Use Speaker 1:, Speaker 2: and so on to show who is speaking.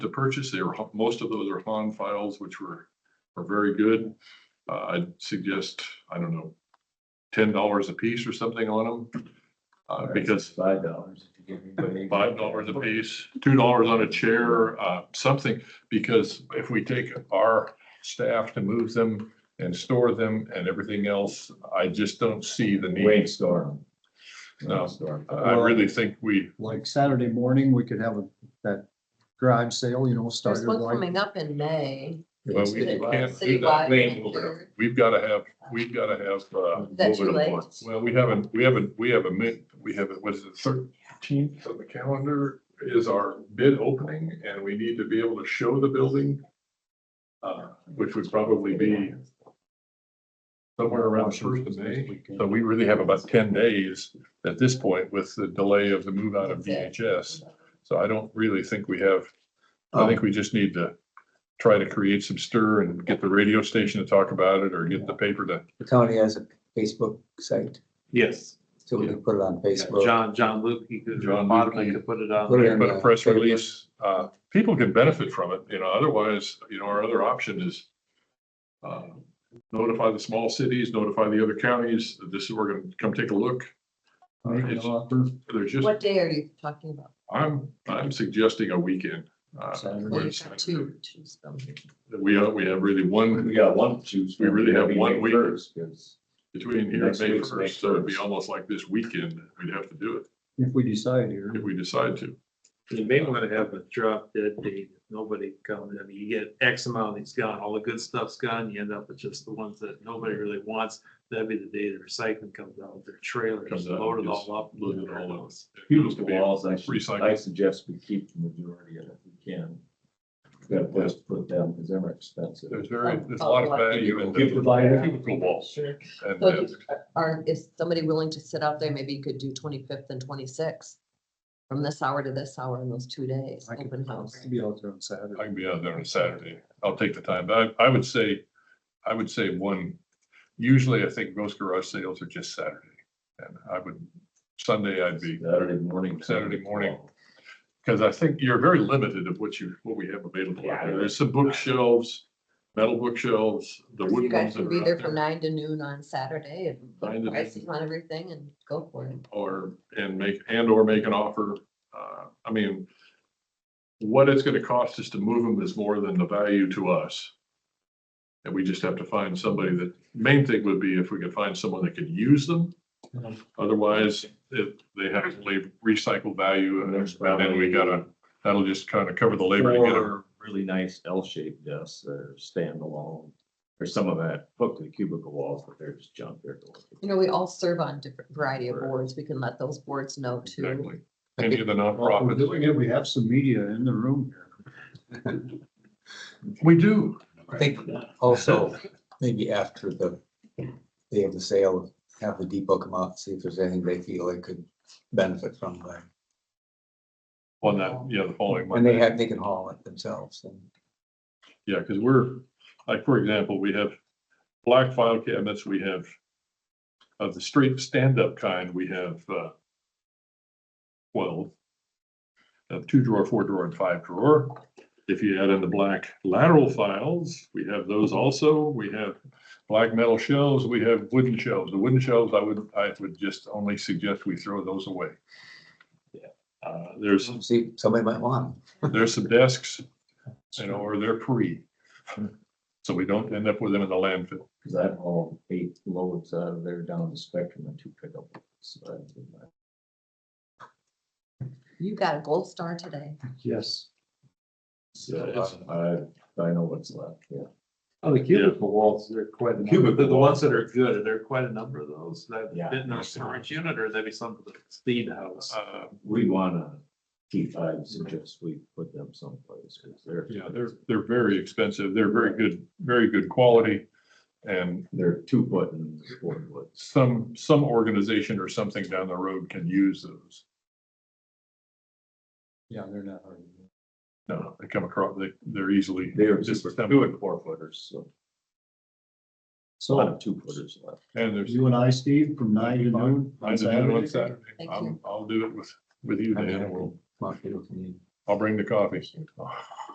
Speaker 1: to purchase. They were, most of those are Han files, which were, are very good. Uh, I'd suggest, I don't know, ten dollars a piece or something on them. Uh, because
Speaker 2: Five dollars. if you give everybody-
Speaker 1: five dollars a piece, two dollars on a chair, uh, something, because if we take our staff to move them and store them and everything else, I just don't see the
Speaker 2: Wave
Speaker 1: need.
Speaker 2: storm.
Speaker 1: No.
Speaker 2: Wave storm.
Speaker 1: I I really think we,
Speaker 3: like Saturday morning, we could have a- that garage sale, you know, start
Speaker 4: There's
Speaker 3: your
Speaker 4: one
Speaker 3: light.
Speaker 4: coming up in May.
Speaker 1: well, we we can't do that.
Speaker 4: Citywide.
Speaker 2: Wayne,
Speaker 1: We've got to have, we've got to have, uh,
Speaker 4: Is that
Speaker 2: Move
Speaker 4: too
Speaker 2: it
Speaker 4: late?
Speaker 2: along.
Speaker 1: well, we haven't, we haven't, we have a min, we have, what is it, thirteenth on the calendar is our bid opening and we need to be able to show the building. Uh, which would probably be somewhere around first of May. So we really have about ten days at this point with the delay of the move out of VHS. So I don't really think we have,
Speaker 5: Oh.
Speaker 1: I think we just need to try to create some stir and get the radio station to talk about it or get the paper to
Speaker 5: Tony has a Facebook site,
Speaker 6: Yes,
Speaker 5: so we can put it on
Speaker 6: yeah,
Speaker 5: Facebook.
Speaker 6: John, John Luke, he could,
Speaker 1: John
Speaker 6: bottom,
Speaker 1: Luke,
Speaker 6: he
Speaker 1: he-
Speaker 6: could put it on.
Speaker 5: Put it
Speaker 6: there.
Speaker 5: in
Speaker 1: But
Speaker 5: the
Speaker 1: a press
Speaker 5: Facebook.
Speaker 1: release, uh, people can benefit from it, you know, otherwise, you know, our other option is uh, notify the small cities, notify the other counties, that this is, we're gonna come take a look. Uh,
Speaker 3: Make an
Speaker 1: it's-
Speaker 3: offer.
Speaker 1: There's just,
Speaker 4: What day are you talking about?
Speaker 1: I'm, I'm suggesting a weekend. uh,
Speaker 3: Saturday.
Speaker 4: Well,
Speaker 1: where
Speaker 4: you've
Speaker 1: it's-
Speaker 4: got two to choose from.
Speaker 1: We, uh, we have really
Speaker 2: We
Speaker 1: one
Speaker 2: got one to choose.
Speaker 1: We
Speaker 2: from.
Speaker 1: really have
Speaker 2: Maybe
Speaker 1: one
Speaker 2: May
Speaker 1: week.
Speaker 2: 1st, 'cause
Speaker 1: between here and
Speaker 2: Next
Speaker 1: May
Speaker 2: week's May
Speaker 1: first, so it'd be
Speaker 2: 1st.
Speaker 1: almost like this weekend, we'd have to do it
Speaker 3: If we decide here,
Speaker 1: if we decide to.
Speaker 6: You may want to have a drop dead date, if nobody comes, I mean, you get X amount, it's gone, all the good stuff's gone, you end up with just the ones that nobody really wants. That'd be the day the recycling comes out, with their trailers,
Speaker 1: Comes out,
Speaker 6: load it
Speaker 1: gets
Speaker 6: all up.
Speaker 1: loaded all up.
Speaker 2: Huge walls, I should,
Speaker 1: Recycle.
Speaker 2: I suggest we keep the majority of it if we can. We Got a place to put them because they're expensive.
Speaker 1: There's very, there's a lot of value in
Speaker 2: Give the
Speaker 1: the
Speaker 2: buyer.
Speaker 1: cubicle walls.
Speaker 2: Sure.
Speaker 1: And
Speaker 4: So
Speaker 1: uh,
Speaker 4: if- Are, is somebody willing to sit out there? Maybe you could do twenty-fifth and twenty-sixth from this hour to this hour in those two days,
Speaker 3: I could
Speaker 4: open house.
Speaker 3: I'll be out there on Saturday.
Speaker 1: I can be out there on Saturday. I'll take the time, but I, I would say, I would say one, usually I think most garage sales are just Saturday. And I would, Sunday I'd be,
Speaker 2: Saturday morning.
Speaker 1: Saturday morning. because I think you're very limited of what you, what we have available. out there. There's some bookshelves, metal bookshelves, the
Speaker 4: You
Speaker 1: wood ones
Speaker 4: guys
Speaker 1: that
Speaker 4: can
Speaker 1: are
Speaker 4: be
Speaker 1: out
Speaker 4: there from
Speaker 1: there.
Speaker 4: nine to noon on Saturday and
Speaker 1: Nine
Speaker 4: put
Speaker 1: to
Speaker 4: prices on everything and go for it.
Speaker 1: Or, and make, and or make an offer. Uh, I mean, what it's gonna cost us to move them is more than the value to us. And we just have to find somebody that, main thing would be if we could find someone that could use them.
Speaker 4: Mm-hmm.
Speaker 1: Otherwise, if they have to leave recycle value and then we gotta, that'll just kind of cover the labor to get them.
Speaker 2: Four really nice L-shaped desks that are standalone. Or some of that hooked to the cubicle walls, but they're just junk. They're
Speaker 4: You know, we all serve on different variety of
Speaker 2: Right.
Speaker 4: boards. We can let those boards know too.
Speaker 1: Exactly. Any of the
Speaker 3: While we're doing
Speaker 1: nonprofits.
Speaker 3: it, we have some media in the room here.
Speaker 1: We do.
Speaker 5: I think also, maybe after the day of the sale, have the depot come out, and see if there's anything they feel they could benefit from. there.
Speaker 1: On that, yeah, the following
Speaker 5: And they
Speaker 1: Monday.
Speaker 5: have, they can haul it themselves and.
Speaker 1: Yeah, because we're, like, for example, we have black file cabinets, we have of the straight stand-up kind, we have uh twelve. Uh, two drawer, four drawer, and five drawer. If you add in the black lateral files, we have those also. We have black metal shelves, we have wooden shelves. The wooden shelves, I would, I would just only suggest we throw those away.
Speaker 2: Yeah.
Speaker 1: Uh, there's
Speaker 5: See, somebody might want.
Speaker 1: there's some desks, you know, or they're free.
Speaker 3: Hmm.
Speaker 1: So we don't end up with them in the landfill.
Speaker 2: Because I've hauled eight loads out of there down the spectrum and two pickup. loads. So I've been like,
Speaker 4: You got a gold star today.
Speaker 3: Yes.
Speaker 2: So uh, I, I know what's left, yeah.
Speaker 6: Oh, the cubicle walls, they're quite, a number. the, the ones that are good, there are quite a number of those. That
Speaker 2: Yeah.
Speaker 6: fit in our storage unit or that'd be something that Steve house.
Speaker 1: Uh,
Speaker 3: Um,
Speaker 2: We wanna keep, I suggest we put them someplace, because they're.
Speaker 1: Yeah, they're, they're very expensive. They're very good, very good quality. And
Speaker 2: They're two foot and four foot.
Speaker 1: some, some organization or something down the road can use those.
Speaker 3: Yeah, they're not hard. to do.
Speaker 1: No, they come across, they, they're easily.
Speaker 2: They are
Speaker 1: Just
Speaker 2: super,
Speaker 1: some-
Speaker 2: two and four footers, so a
Speaker 3: So
Speaker 2: lot of two footers left.
Speaker 1: And there's.
Speaker 3: you and I, Steve, from nine to noon
Speaker 1: I
Speaker 3: on
Speaker 1: do it
Speaker 3: Saturday.
Speaker 1: on Saturday.
Speaker 4: Thank
Speaker 1: I'm-
Speaker 4: you.
Speaker 1: I'll do it with, with you,
Speaker 5: I mean, I
Speaker 1: Dan.
Speaker 5: can-
Speaker 1: We'll-
Speaker 5: Mark, you know, can you-
Speaker 1: I'll bring the coffee.